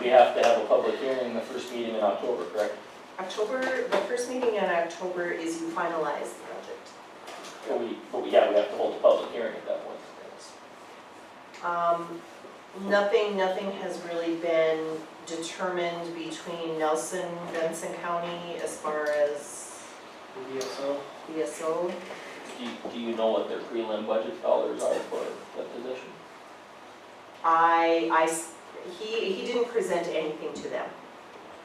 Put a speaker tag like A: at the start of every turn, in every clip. A: we have to have a public hearing the first meeting in October, correct?
B: October, the first meeting in October is you finalize the budget.
A: But we, but we, yeah, we have to hold a public hearing at that point.
B: Um, nothing, nothing has really been determined between Nelson, Benson County as far as
C: DSO.
B: ESO.
A: Do you, do you know what their prelim budget dollars are for that position?
B: I, I s- he, he didn't present anything to them,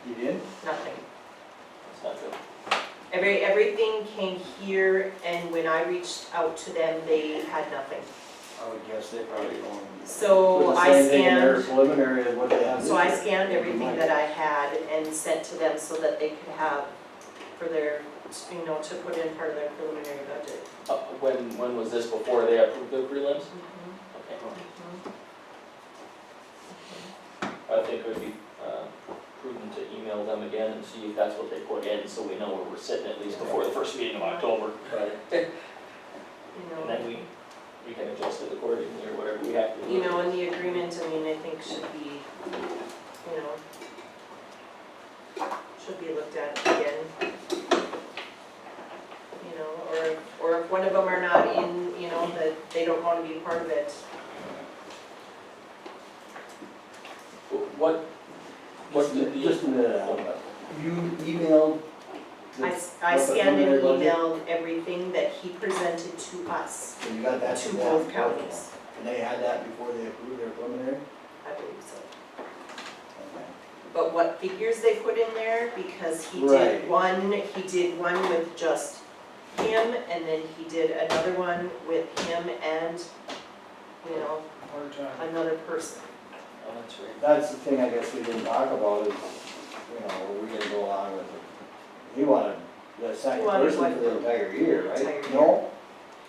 C: You did?
B: nothing.
A: That's not good.
B: Every, everything came here and when I reached out to them, they had nothing.
C: I would guess they probably don't.
B: So
C: With the
B: Oh, I
C: same thing in their
B: scanned,
C: Preliminary of what they have.
B: so I scanned everything that I had and sent to them so that they could have for their, you know, to put in part of their preliminary budget.
A: Uh, when, when was this before they approved the prelims? Okay. I think it would be uh, prudent to email them again and see if that's what they put in, so we know where we're sitting at least before the first meeting of October.
B: You
A: And
B: know,
A: then we, we can adjust it accordingly or whatever we have to. do.
B: you know, and the agreement, I mean, I think should be, you know, should be looked at again. You know, or, if- or if one of them are not in, you know, that they don't wanna be part of it.
A: What, what
C: Just,
A: did
C: a-
A: the?
C: just a minute, Al. You emailed. the-
B: I, s- I
C: Look at
B: scanned and
C: preliminary
B: emailed everything that he presented to us,
C: And you got that.
B: to
C: from
B: both
C: them?
B: counties,
C: And they had that before they approved their preliminary?
B: I believe so.
C: Okay.
B: But what figures they put in there, because he
C: Right.
B: did one, he did one with just him, and then he did another one with him and, you know, another person.
A: Oh, that's right.
C: That's the thing I guess we didn't talk about is, you know, we didn't go along with it. He wanted the second
B: wanted
C: person for
B: what?
C: the entire year,
B: Entire
C: right?
B: year.
C: No?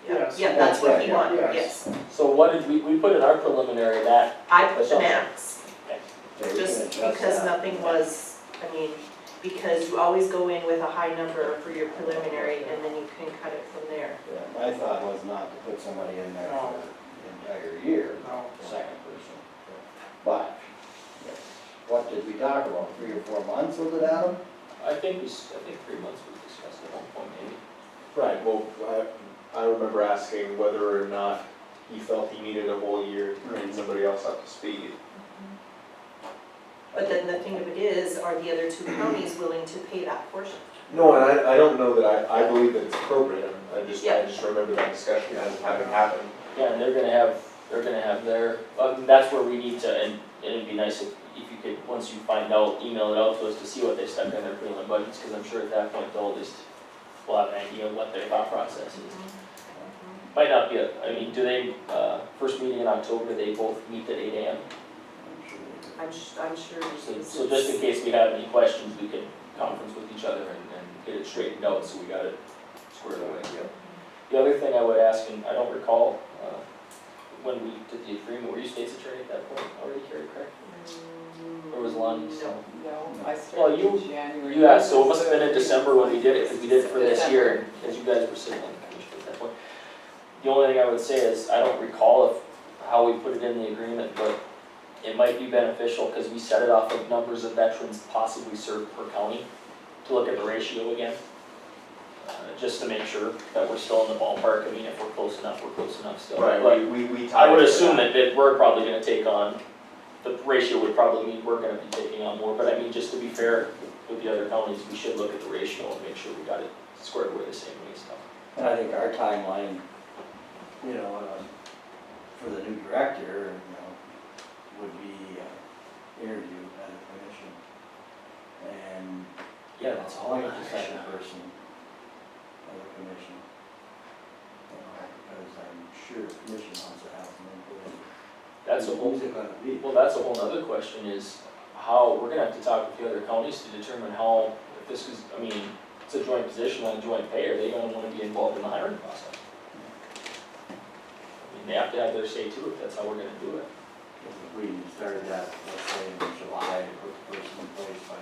B: Yeah,
D: Yes.
B: yeah, that's what he
C: That's right,
B: wanted,
D: yeah,
B: yes.
A: So what did, we, we put in our preliminary that,
B: I put the max,
C: Okay, we can
B: just
C: adjust
B: because
C: that.
B: nothing was, I mean, because you always go in with a high number for your preliminary, and then you can cut it from there.
C: Yeah, My thought was not to put somebody in there for the entire year,
D: No.
C: the second person. But, what did we talk about, three or four months with it, Adam?
A: I think we, s- I think three months we discussed at one point maybe.
E: Right, well, I, I remember asking whether or not he felt he needed a whole year to bring somebody else up to speed.
B: But then the thing of it is, are the other two counties willing to pay that portion?
E: No, and I, I don't know that I, I believe that it's appropriate, I just, I just remember that discussion as having happened.
A: Yeah, and they're gonna have, they're gonna have their, I mean, that's where we need to, and it'd be nice if, if you could, once you find out, email it out to us to see what they stuck in their prelim budgets, cause I'm sure at that point they'll just, will have an idea of what their thought process is. Might not be, a I mean, do they, uh, first meeting in October, they both meet at eight AM?
B: I'm sh I'm sure
A: So,
B: this
A: so just in
B: is,
A: case we have any questions, we can conference with each other and, and get it straightened out, so we got it squared away. The other thing I would ask, and I don't recall, uh, when we did the agreement, were you state's attorney at that point already, Carrie, correct? Or was Lonnie still?
F: No, I
A: Well,
F: started
A: you-
F: in January.
A: Yeah, so it must have been in December when we did it, because we did it for this year,
F: December.
A: as you guys were sitting on the commission at that point. The only thing I would say is, I don't recall if, how we put it in the agreement, but it might be beneficial, because we set it off of numbers of veterans possibly served per county, to look at the ratio again. Uh, just to make sure that we're still in the ballpark, I mean, if we're close enough, we're close enough still. But-
E: Right, we, we, we tied.
A: I would
E: it to
A: assume that, that we're probably gonna take on, the ratio would probably mean we're gonna be taking on more, but I mean, just to be fair with the other counties, we should look at the ratio and make sure we got it squared away the same way and stuff.
C: And I think our timeline, you know, uh, for the new director, you know, would be uh, interview at the commission. And.
A: Yeah, that's all I
C: Like
A: got.
C: the second person of the commission. You know, Because I'm sure the commission wants to have some input.
A: That's a whole,
C: Who's it gonna be?
A: well, that's a whole nother question is how, we're gonna have to talk with the other counties to determine how, if this is, I mean, it's a joint position on a joint pay, are they gonna wanna be involved in the hiring process? I mean, they have to have their say too, if that's how we're gonna do it.
C: If we started that, let's say in July, put the person in place by